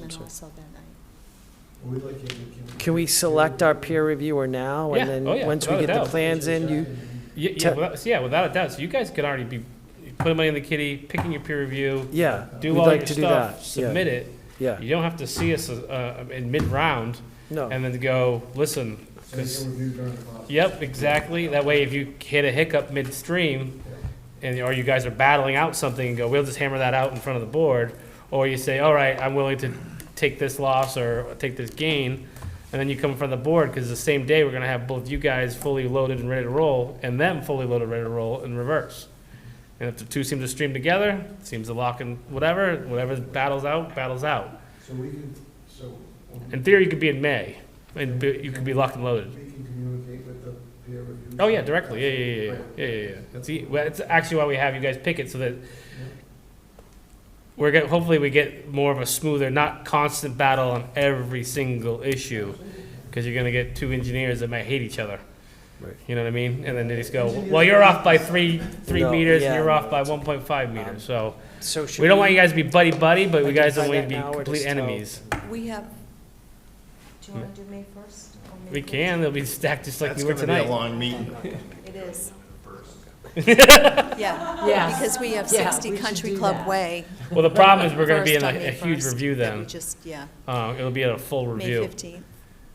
That's right. also that night. We'd like you to- Can we select our peer reviewer now? Yeah. And then, Oh, yeah. once we Without a get the doubt. plans in, you, Yeah, yeah, Te- without, so yeah, without a doubt. So you guys could already be putting money in the kitty, picking your peer review, yeah. do Uh, we'd all like your to do stuff, that, yeah, submit it. Yeah, Oh. You don't have to see us uh, in mid round no, and then go listen. So you can review during the process. Yep, exactly. That way, if you hit a hiccup midstream, and or you guys are battling out something and go, we'll just hammer that out in front of the board, or you say, all right, I'm willing to take this loss or take this gain, and then you come in front of the board because the same day we're gonna have both you guys fully loaded and ready to roll, and them fully loaded, ready to roll in reverse. And if the two seem to stream together, seems to lock in whatever, whatever battles out, battles out. So we can, so. In theory, you could be in May, and be- you could be locked and loaded. We can communicate with the peer review. Oh yeah, directly. Yeah, yeah, yeah, yeah, yeah. yeah, yeah. That's e- well, it's actually why we have you guys pick it so that we're get, hopefully we get more of a smoother, not constant battle on every single issue, because you're gonna get two engineers that might hate each other. Right. You know what I mean? And then they just go, well, you're off by three three No, meters, yeah. and you're off by 1.5 meters. Um, so so should we don't want you guys to be buddy buddy, but we guys identify don't want that you now to or be complete just tell- enemies. We have, do you want to do May 1st? or May Hmm. We can. They'll be stacked just like That's we were gonna be a tonight. long meeting. 14th? It is. Yeah. Yeah. Because we have Yeah, 60 we should Country do Club that. Way. Well, the problem is we're gonna be in first a, on May a huge 1st, review that we then. just, yeah, Uh, it'll be a full May review. 15th.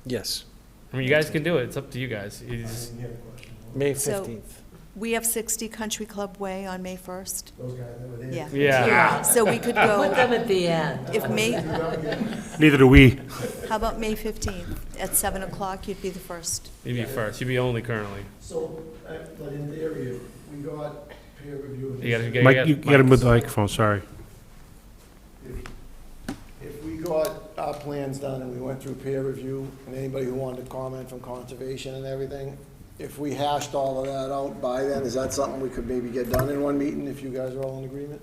Yes, I mean, you guys can do it. It's up to you guys. You I just- didn't hear the question. May So- 15th. We have 60 Country Club Way on May 1st. Those guys that were there. Yeah. yeah. So we could Put go, them at the end. if May, Neither do we. how about May 15th? At 7 o'clock, you'd be the first. You'd be first. You'd be only currently. So, uh, but in theory, if we got peer review. You gotta, you gotta, Mike, you gotta move the Mike's- microphone, sorry. If we got our plans done and we went through peer review, and anybody who wanted to comment from conservation and everything, if we hashed all of that out by then, is that something we could maybe get done in one meeting if you guys are all in agreement?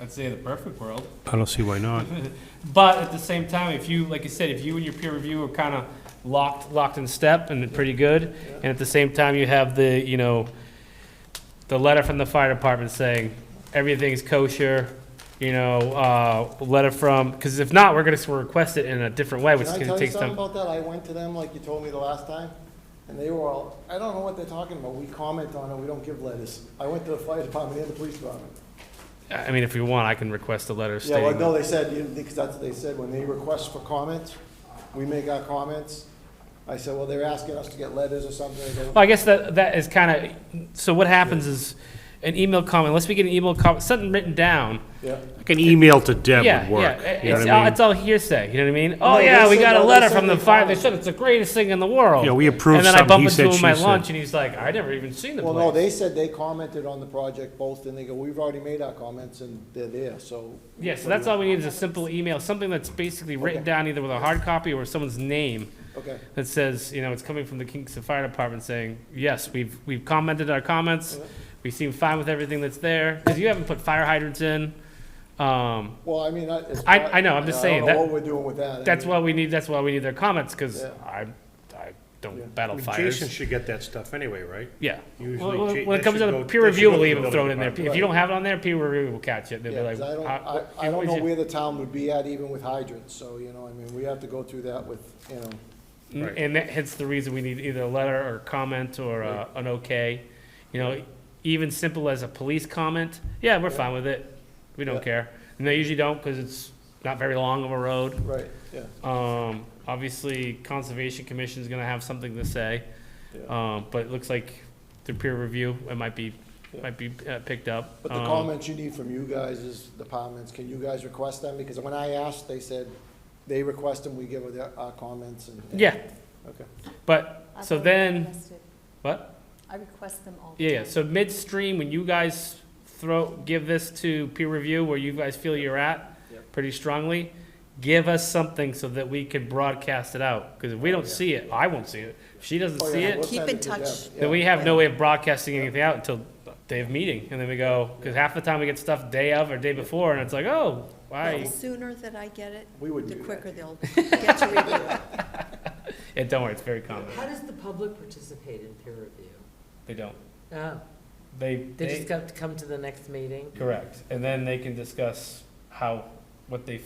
I'd say the perfect world. I don't see why not. But at the same time, if you, like you said, if you and your peer review are kind of locked, locked in step and pretty good, and at the same time you have the, you know, the letter from the fire department saying everything's kosher, you know, uh, letter from, because if not, we're gonna s- request it in a different way, which Can I is tell gonna you take something some. about that? I went to them like you told me the last time, and they were all, I don't know what they're talking about. We comment on it, we don't give letters. I went to the fire department and the police department. I mean, if you want, I can request a letter Yeah, well, stating. no, they said, you- because that's what they said, when they request for comments, we make our comments. I said, well, they're asking us to get letters or something. They go, Well, I guess that, that is kind of, so what happens is, an email comment, unless we get an email comment, something written down, Yeah. Like an email to Deb yeah, would work. yeah, You know it's, what I all, mean? it's all hearsay, you know what I mean? No, Oh, they yeah, we said- got a no, they letter said from the they fire, found they it. said it's the greatest thing in the world. Yeah, we approved And then I something, he bump said, into him she at my said. lunch, and he's like, I never even seen the Well, no, place. they said they commented on the project both, and they go, we've already made our comments, and they're there, so. Yeah, so that's all we need is a simple email, something that's basically written Okay. down either with a hard copy or someone's name Okay, that says, you know, it's coming from the Kingston Fire Department saying, yes, we've, we've commented our comments, we seem fine with everything that's there, because you haven't put fire hydrants in. Um, well, I mean, I. it's I- not- I know, I'm just saying I don't that- know what we're doing with that. I That's mean, why we need, that's why we need their comments, because Yeah. I, I Yeah. don't battle Jason fires. should get that stuff anyway, right? Yeah. Well, Usually well, Ja- When it that comes to should the go- peer that should review, go to we'll the even throw it in there. building If you don't have it on there, peer review will catch it. They'll be Yeah, 'cause like, I don't, "Ah, I, what- I don't what know you-" where the town would be at even with hydrants, so, you know, I mean, we have to go through that with, you know. N- Right. And that hence the reason we need either a letter or comment or uh, an okay. You know, even simple as a police comment, yeah, we're fine with it. We Yeah. don't care. And they usually don't because it's not very long of a road. Right, yeah, Um, obviously, Conservation Commission's gonna have something to say, yeah. um, but it looks like through peer review, it might be, Yeah. might be uh, picked up. But the Um, comments you need from you guys is departments, can you guys request them? Because when I asked, they said, they request them, we give their, our comments and. Yeah, Okay. but, I've so already then, requested- what? I request them all. the Yeah, yeah, time. so midstream, when you guys throw, give this to peer review where you guys feel you're at Yep. pretty strongly, give us something so that we can broadcast it out, because if we don't see it, I won't see it. If she doesn't Oh, yeah, see we'll it, Keep send in it to them, touch. yeah. then we have no way of broadcasting anything out until day of meeting, and then we go, because half the time we get stuff day of or day before, and it's like, oh, The why? sooner that I get it, We would the do that. quicker they'll get to review it. And don't worry, it's very common. How does the public participate in peer review? They don't. Oh, They, they just they, got to come to the next meeting? correct, and then they can discuss how, what they